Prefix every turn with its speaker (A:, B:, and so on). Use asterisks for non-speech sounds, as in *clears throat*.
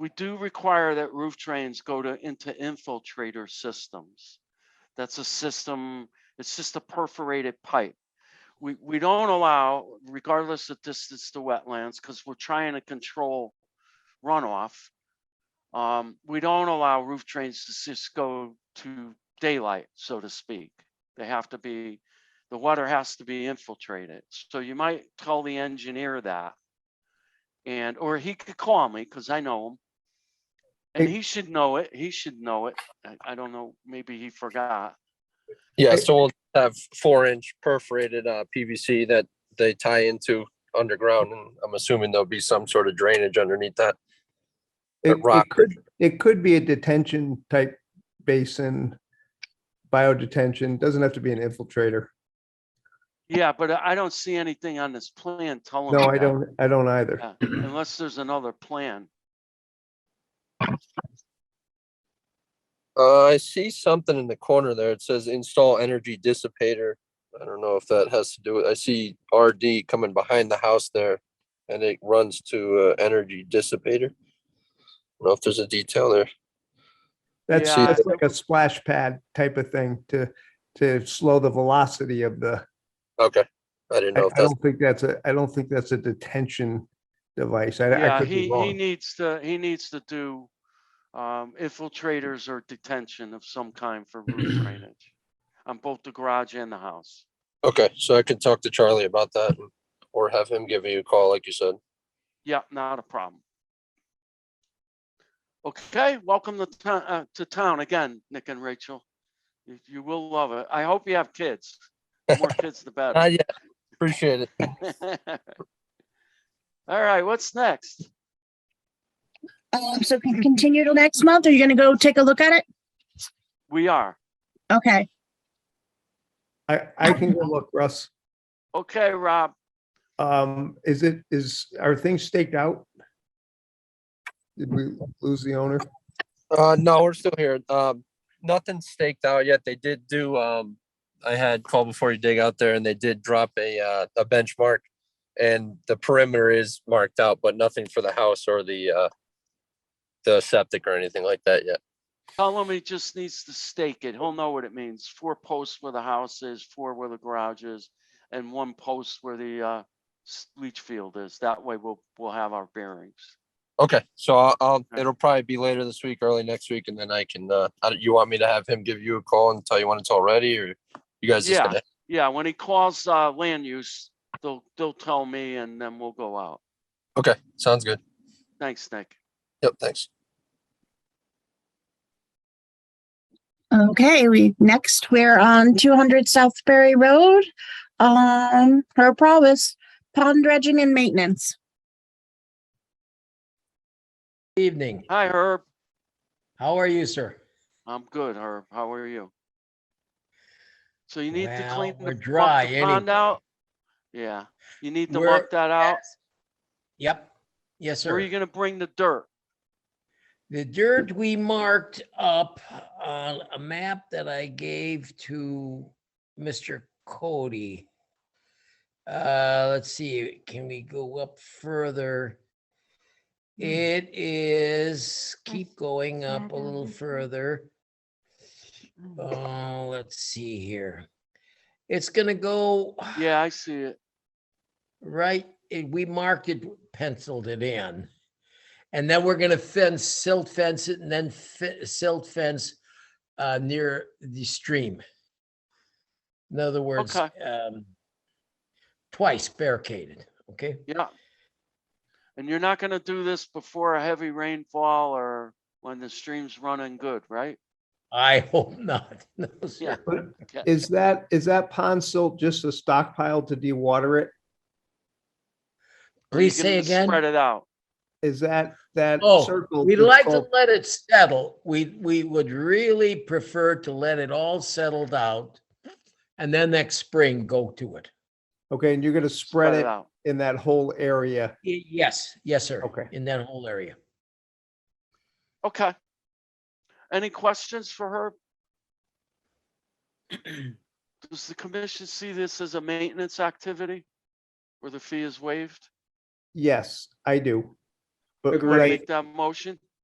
A: we do require that roof drains go to, into infiltrator systems. That's a system, it's just a perforated pipe. We, we don't allow, regardless of distance to wetlands, because we're trying to control runoff. Um, we don't allow roof drains to just go to daylight, so to speak. They have to be, the water has to be infiltrated. So you might tell the engineer that. And, or he could call me because I know him. And
B: Hey-
A: he should know it. He should know it. I, I don't know, maybe he forgot.
C: Yeah,
B: I-
C: so we'll have four inch perforated uh, PVC that they tie into underground and I'm assuming there'll be some sort of drainage underneath that.
B: It,
C: rock.
B: it could, it could be a detention type basin, biodetention, doesn't have to be an infiltrator.
A: Yeah, but I I don't see anything on this plan telling. me
B: No, I
A: that.
B: don't, I don't either.
A: Oh, Yeah, *clears throat* Unless there's another plan.
C: Uh, I see something in the corner there. It says install energy dissipator. I don't know if that has to do with, I see RD coming behind the house there and it runs to uh, energy dissipator. I don't know if there's a detail there.
B: That's,
A: Yeah,
B: that's
A: I-
B: like a splash pad type of thing to, to slow the velocity of the,
C: Okay, I didn't
B: I
C: know
B: I
C: if that's,
B: don't think that's a, I don't think that's a detention device. I, I
A: Yeah,
B: could
A: he,
B: be
A: he
B: wrong.
A: needs to, he needs to do um, infiltrators or detention of some kind for *clears throat* roof drainage on both the garage and the house.
C: okay, so I can talk to Charlie about that and- or have him give you a call, like you said.
A: Yeah, not a problem. Okay, welcome to town, uh, to town again, Nick and Rachel. You, you will love it. I hope you have kids. The More kids, the better.
B: Uh,
C: Not yet. Appreciate it.
A: *laughs* All right, what's next?
D: Um, so can continue till next month? Are you gonna go take a look at it?
A: We are.
D: Okay,
B: I, I can go look, Russ.
A: Okay, Rob,
B: Um, is it, is, are things staked out? Did we lose the owner?
C: Uh, no, we're still here. Um, nothing staked out yet. They did do, um, I had call before you dig out there and they did drop a, uh, a benchmark. And the perimeter is marked out, but nothing for the house or the, uh, the septic or anything like that yet.
A: tell him he just needs to stake it. He'll know what it means. Four posts where the house is, four where the garage is, and one post where the, uh, s- leach field is. That way we'll, we'll have our bearings.
C: Okay, so I'll, I'll, it'll probably be later this week, early next week, and then I can, uh, I don't- you want me to have him give you a call and tell you when it's all ready or you guys just
A: Yeah.
C: gonna?
A: Yeah, when he calls, uh, land use, they'll, they'll tell me and then we'll go out.
C: Okay, sounds good.
A: Thanks, Nick.
C: Yep, thanks.
D: okay, we, next, we're on two hundred Southbury Road. Um, her promise, pond dredging and maintenance.
E: Evening.
A: Hi, Herb.
E: How are you, sir?
A: I'm good, Herb. How are you? So you need to
E: Well,
A: clean the
E: we're
A: muck the
E: dry
A: pond
E: anyway.
A: out? Yeah, you need to
E: We're-
A: muck that out.
E: Yep. Yes,
A: Where are you
E: sir.
A: gonna bring the dirt?
E: The dirt we marked up on a map that I gave to Mr. Cody. Uh, let's see, can we go up further? It is, keep going up a little further. Oh, let's see here. It's gonna go.
A: Yeah, I see it.
E: Right, and we marked it, penciled it in. And then we're gonna fence, silt fence it, and then fe- silt fence uh, near the stream. In other words,
A: Okay.
E: um, twice barricaded, okay?
A: Yeah. And you're not gonna do this before a heavy rainfall or when the stream's running good, right?
E: I hope not. *laughs* No,
A: Yeah.
E: sir.
B: But
A: Okay.
B: is that, is that pond silt just a stockpile to dewater it?
A: Or you
E: Please say
A: gonna
E: again.
A: Spread it out.
B: Is that, that
E: Oh,
B: circle?
E: We'd
B: that's
E: like to
B: called-
E: let it settle. We, we would really prefer to let it all settled out. And then next spring, go to it.
B: Okay, and you're gonna spread it
A: out.
B: in that whole area.
E: Y- Yes, yes, sir.
B: Okay.
E: In that whole area.
A: Okay. Any questions for her? Does the commission see this as a maintenance activity? Where the fee is waived?
B: Yes, I do. But
A: You wanna
B: what I,
A: Make that motion?